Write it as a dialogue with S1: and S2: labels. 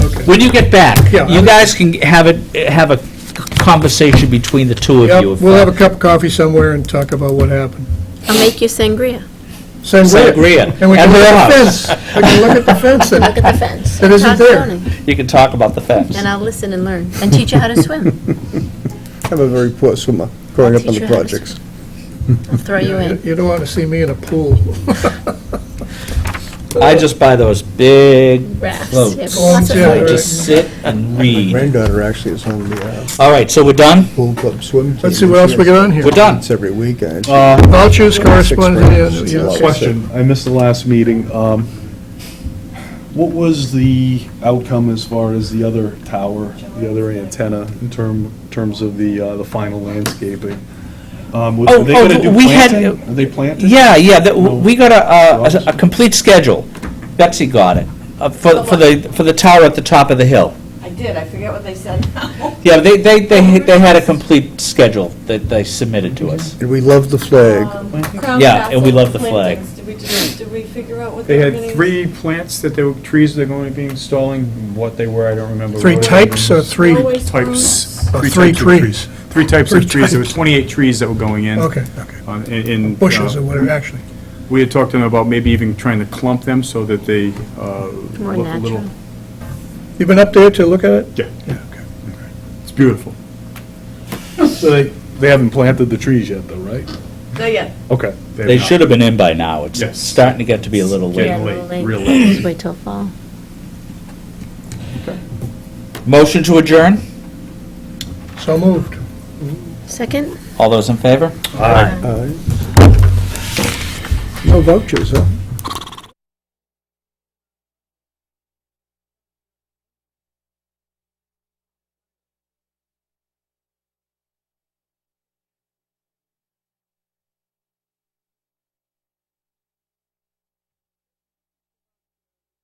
S1: When you get back,
S2: Yeah,
S1: you
S2: I-
S1: guys can have it, have a conversation between the two of
S2: Yep,
S1: you.
S2: we'll have a cup of coffee somewhere and talk about what happened.
S3: I'll make you
S2: Uh,
S3: sangria.
S2: Sangria.
S1: Sangria.
S2: And we can
S1: And
S2: look at the
S1: rocks.
S2: fence. We can look at the fence then.
S3: Look at the fence.
S2: uh, That isn't
S3: Todd's
S2: there.
S3: learning.
S1: uh, You can talk about the fence.
S3: And I'll listen and learn, and teach you how to swim.
S4: I'm a very poor swimmer, growing up on the
S3: Teacher had us-
S4: projects.
S3: I'll throw you in.
S2: You don't want to see me in a pool.
S1: I just buy those big
S3: Rafts.
S1: floats.
S3: Yeah,
S2: Oh,
S3: lots of
S2: yeah,
S3: fun.
S1: I just sit and read.
S4: Granddaughter actually is on the uh,
S1: All right, so we're done?
S4: pool club swim team.
S2: Let's see what else we got on here. Oh.
S1: We're done.
S4: It's every weekend.
S1: Uh,
S2: Vouchers, correspondence, any other-
S4: Six
S2: yeah,
S4: grand.
S2: okay.
S5: Question, I missed the last meeting. Um, What was the outcome as far as the other tower, the other antenna, in term, terms of the, uh, the final landscaping? Um, was-
S1: Oh,
S5: Are they
S1: oh,
S5: gonna do
S1: we had-
S5: planting? Are they planting?
S1: Yeah, yeah, that- we got a- a, a
S5: Rocks.
S1: complete schedule. Betsy got it, uh, for, for the, for the tower at the top of the hill.
S6: I did, I forget what they said now. Um,
S1: Yeah, they, they,
S3: Oh,
S1: they they had a complete schedule that they submitted to us.
S4: And we love the flag.
S1: Yeah, and we love the flag.
S6: Did we, do- did we figure out what
S7: They
S6: they were
S7: had
S6: gonna-
S7: three plants that they were, trees they're going to be installing, what they were, I don't remember.
S2: Three
S7: what it
S2: types or
S7: was.
S2: three,
S6: Always
S7: Types.
S2: or
S7: Three
S2: Oh, three
S7: types of
S2: trees?
S7: Three types
S2: Three
S7: of trees, there was
S2: types.
S7: 28 trees that were going in.
S2: Okay, okay.
S7: Um, and- and, uh,
S2: Bushes or whatever, actually.
S7: We had talked to them about maybe even trying to clump them so that they uh,
S3: More
S7: look a little.
S3: natural.
S2: You been up there to look at it?
S7: Yeah, yeah, okay. It's beautiful.
S5: So they, they haven't planted the trees yet, though, right?
S6: Not yet.
S5: Okay.
S1: They should have been in by now. It's
S7: Yes.
S1: starting to get to be a little late.
S3: Yeah, a
S7: late,
S3: little late.
S7: real late.
S3: Just Wait till fall.
S1: Motion to adjourn?
S2: So moved.
S3: Second?
S1: All those in favor?
S4: Aye. uh, No vouchers, huh?